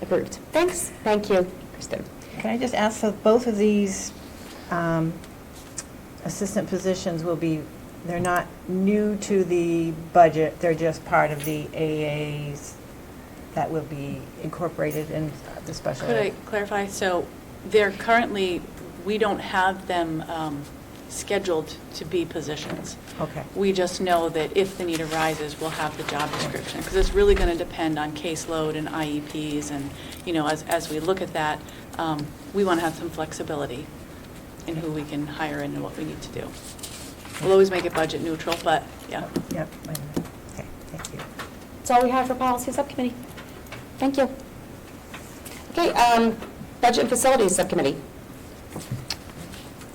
Approved. Thanks. Thank you, Kristen. Can I just ask, so both of these um, assistant positions will be, they're not new to the budget, they're just part of the AAs that will be incorporated in the special Could I ed? clarify? So they're currently, we don't have them um, scheduled to be positions. Okay. We just know that if the need arises, we'll have the job description. Because it's really going to depend on caseload and IEPs and, you know, as, as we look at that, um, we want to have some flexibility in who we can hire and what we need to do. We'll always make it budget neutral, but, yeah. Yep, I know. okay, thank you. That's all we have for policy subcommittee. Thank you. Okay, um, budget and facilities subcommittee. I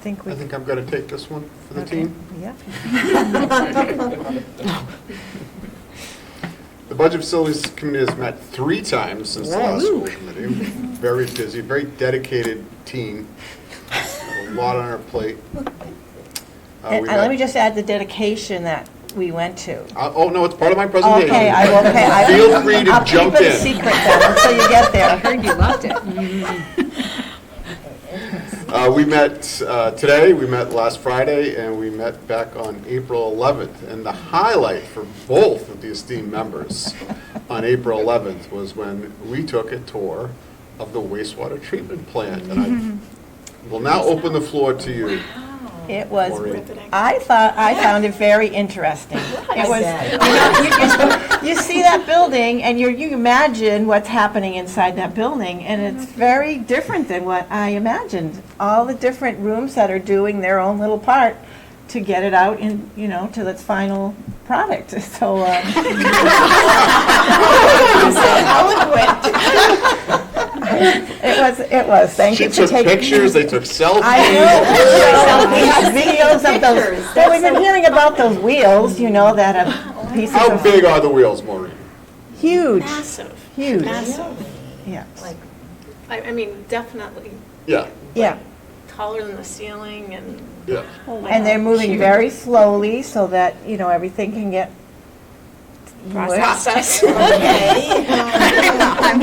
think we. I think I'm going to take this one for the okay, team. Uh, Yeah. The Budget Facilities Committee has met three times since the last school committee. Very busy, very dedicated team, a lot on our plate. Uh, And and uh, we let met- me just add the dedication that we went to. Uh, Oh, no, it's part of my presentation. Okay, I will, okay. I- Feel free to jump I'll keep it a in. secret then, until you get there. I heard you loved it. Uh, We met uh, today, we met last Friday, and we met back on April 11th. And the highlight for both of the esteemed members on April 11th was when we took a tour of the wastewater treatment plant. And I will now open the floor to you. It was, Maureen. I thought, I found it very interesting. It was, you know, you- you see that building, and you, you imagine what's happening inside that building, and it's very different than what I imagined. All the different rooms that are doing their own little part to get it out in, you know, to its final product, so. um, It was, it was, thank She you for took taking. pictures, they took I selfies. know. Videos of those. Well, we've been hearing about those wheels, you know, that a piece How of, big are the wheels, Maureen? huge, Massive, huge, massive. yeah. Like, I, I mean, definitely Yeah, Yeah, taller than the ceiling and. yeah. Oh, and they're moving very slowly so that, you know, everything can get. Process. I'm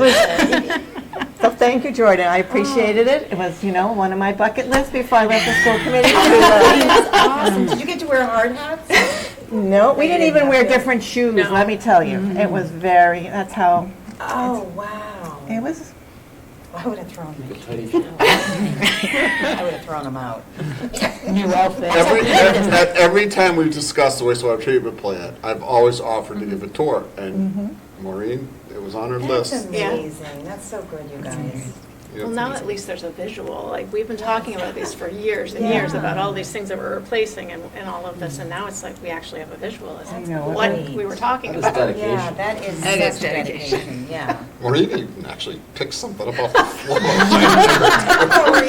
with you, So thank you, Jordan, I appreciated it. It was, you know, one of my bucket lists before I left the school committee. Awesome. Did you get to wear hard hats? No, we didn't even wear different shoes, let me tell you. It Mm-hmm. was very, that's how, Oh, wow. it was, I would have thrown them. I would have thrown them out. Every, ev- ev- every time we've discussed the wastewater treatment plant, I've always offered to give a tour, and Maureen, it was on her Mm-hmm. That's list. Yeah. amazing. That's so good, you guys. You Well, know, now at least there's a visual, like, we've been talking about these for years and years, about all these things that we're replacing and, and all of this, and now it's like, we actually have a visual as I to know, it what was- we were talking That was about. Yeah, that is That is such dedication, yeah. Maureen even actually picked something up off the floor.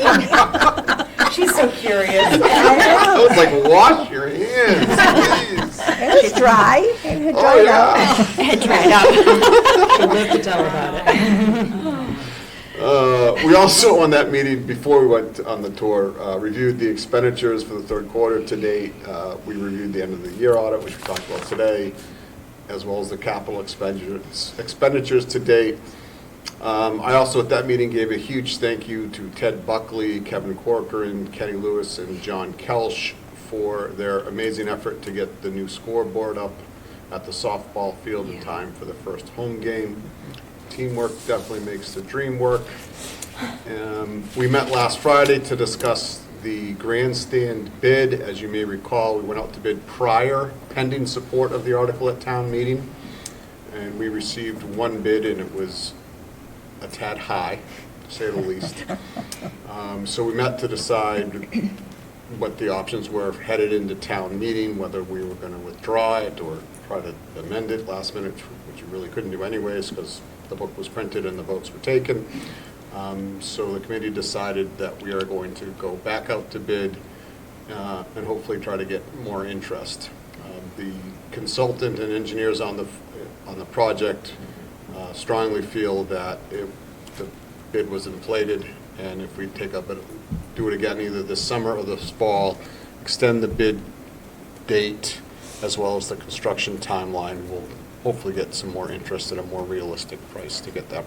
She's so curious. I was like, wash your hands, please. it was dry, it had Oh, dried out. yeah. Uh, We also, on that meeting, before we went on the tour, uh, reviewed the expenditures for the third quarter to date. Uh, We reviewed the end of the year audit, which we talked about today, as well as the capital expenditures, expenditures to date. Um, I also, at that meeting, gave a huge thank you to Ted Buckley, Kevin Corcoran, Kenny Lewis, and John Kelch for their amazing effort to get the new scoreboard up at the softball field in time for the first home game. Teamwork definitely makes the dream work. Um, We met last Friday to discuss the grandstand bid. As you may recall, we went out to bid prior, pending support of the article at town meeting. And we received one bid, and it was a tad high, to say the least. Um, So we met to decide what the options were headed into town meeting, whether we were going to withdraw it or try to amend it last minute, which you really couldn't do anyways, because the book was printed and the votes were taken. Um, So the committee decided that we are going to go back out to bid uh, and hopefully try to get more interest. Um, The consultant and engineers on the, on the project uh, strongly feel that it, the bid was inflated, and if we take up, it, do it again either this summer or this fall, extend the bid date as well as the construction timeline, we'll hopefully get some more interest at a more realistic price to get that